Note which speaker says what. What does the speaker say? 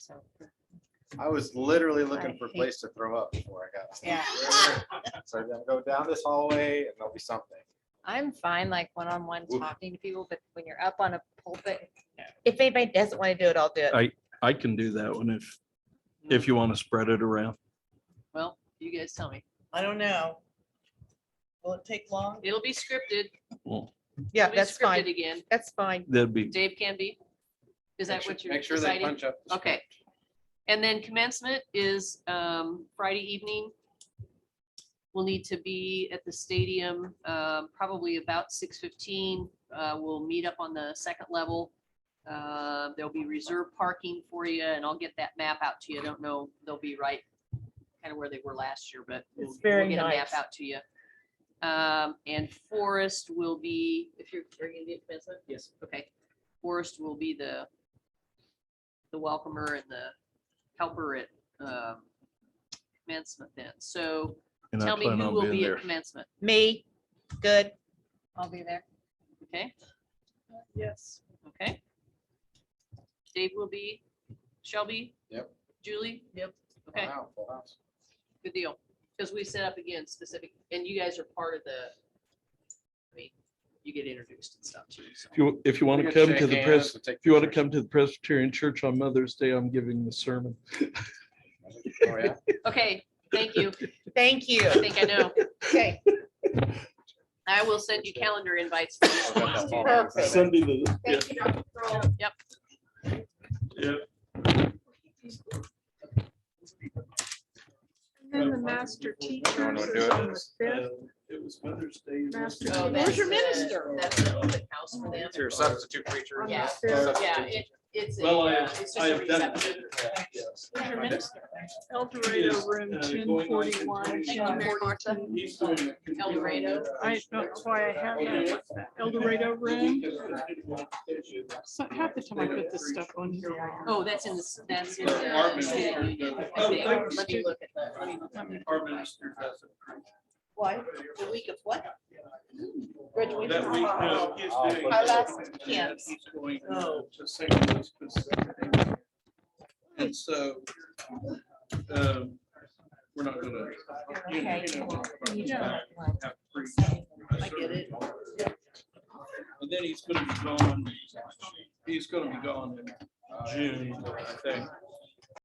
Speaker 1: so.
Speaker 2: I was literally
Speaker 1: I
Speaker 2: looking for a
Speaker 1: hate-
Speaker 2: place to throw up before I got.
Speaker 1: Yeah.
Speaker 2: So then go down this hallway and there'll be something.
Speaker 1: I'm fine, like one-on-one
Speaker 2: Oof.
Speaker 1: talking to people, but when you're up on a pulpit,
Speaker 3: If anybody doesn't want to do it, I'll do it.
Speaker 4: I can do that one if, if you want to spread it around.
Speaker 5: Well, you guys tell me.
Speaker 6: I don't know. Will it take long?
Speaker 5: It'll be scripted.
Speaker 4: Well,
Speaker 3: Yeah,
Speaker 5: It'll be
Speaker 3: that's
Speaker 5: scripted
Speaker 3: fine.
Speaker 5: Again,
Speaker 3: That's fine.
Speaker 4: that'd be,
Speaker 5: Dave can be. Is
Speaker 2: Make
Speaker 5: that
Speaker 2: sure-
Speaker 5: what you're
Speaker 2: Make sure they
Speaker 5: deciding?
Speaker 2: punch up. the
Speaker 5: Okay. And then commencement is um, Friday evening. We'll need to be at the stadium, um, probably about six fifteen. Uh, We'll meet up on the second level. Uh, There'll be reserved parking for you and I'll get that map out to you. I don't know, they'll be right kind of where they were last year, but we'll
Speaker 3: It's
Speaker 5: we'll
Speaker 3: very
Speaker 5: get a map
Speaker 3: nice.
Speaker 5: out to you. Um, And Forest will be, if you're, are you gonna be at commencement? Yes. Okay. Forest will be the the welcomer and the helper at um, commencement then. So
Speaker 4: and I
Speaker 5: tell me
Speaker 4: plan
Speaker 5: who
Speaker 4: on
Speaker 5: will
Speaker 4: being
Speaker 5: be at
Speaker 4: there.
Speaker 5: commencement,
Speaker 3: Me, good.
Speaker 1: I'll be there.
Speaker 5: okay?
Speaker 6: Yes.
Speaker 5: Okay. Dave will be, Shelby?
Speaker 2: Yep.
Speaker 5: Julie?
Speaker 6: Yep.
Speaker 2: Full
Speaker 5: Okay,
Speaker 2: house, full house.
Speaker 5: good deal. Because we set up again specific, and you guys are part of the, I mean, you get introduced and stuff too. so.
Speaker 4: If you, if you want to
Speaker 2: We
Speaker 4: come
Speaker 2: shake
Speaker 4: to the
Speaker 2: hands
Speaker 4: press,
Speaker 2: and take
Speaker 4: if you want to
Speaker 2: pictures.
Speaker 4: come to the Presbyterian Church on Mother's Day, I'm giving the sermon.
Speaker 2: Oh, yeah?
Speaker 5: Okay, thank you.
Speaker 3: Thank you.
Speaker 5: I think I know.
Speaker 3: Okay,
Speaker 5: I will send you calendar invites. for this
Speaker 2: I've got that
Speaker 5: one.
Speaker 2: ball.
Speaker 3: perfect.
Speaker 4: Sunday the, yeah,
Speaker 3: Thank you.
Speaker 4: yeah.
Speaker 7: And Then the master
Speaker 2: Everyone
Speaker 7: teachers
Speaker 2: would
Speaker 7: is
Speaker 2: do
Speaker 7: on
Speaker 2: it.
Speaker 7: the fifth.
Speaker 4: uh, It was Mother's Day.
Speaker 7: Master
Speaker 5: Oh,
Speaker 7: Where's
Speaker 5: that's
Speaker 7: your
Speaker 5: the-
Speaker 7: minister?
Speaker 5: That's the open house for them.
Speaker 2: It's your substitute preacher.
Speaker 7: Yeah.
Speaker 2: Substitute
Speaker 5: Yeah,
Speaker 2: teacher.
Speaker 5: it, it's. a,
Speaker 4: Well, I,
Speaker 5: uh, it's just
Speaker 4: I
Speaker 5: a
Speaker 4: have done
Speaker 5: reception.
Speaker 4: it. Yes.
Speaker 7: Where's your minister? El
Speaker 4: He
Speaker 7: Dorado
Speaker 4: is,
Speaker 7: room
Speaker 4: uh,
Speaker 7: ten
Speaker 4: going on to
Speaker 7: forty-one.
Speaker 5: Thank you, Mary Martha.
Speaker 4: He's doing it.
Speaker 5: El Dorado.
Speaker 7: I, that's why I have that El Dorado room. So half the time I put this stuff on here.
Speaker 5: Oh, that's in the, that's in
Speaker 4: Armin.
Speaker 5: the. I
Speaker 4: Oh, thank
Speaker 5: think.
Speaker 4: you,
Speaker 5: Let me
Speaker 4: Steve.
Speaker 5: look at that. Let me-
Speaker 4: Our minister does it.
Speaker 3: What?
Speaker 4: The
Speaker 3: week of what?
Speaker 7: Graduation.
Speaker 4: That
Speaker 2: uh,
Speaker 4: week, no, his day.
Speaker 3: Our last
Speaker 4: And
Speaker 3: camps.
Speaker 4: he's going to St. Louis Pacific. And so, um, we're not gonna. you know, you know,
Speaker 7: Yeah.
Speaker 4: have free-
Speaker 5: I get it.
Speaker 4: And then he's gonna be gone, he's gonna be gone in June, I think.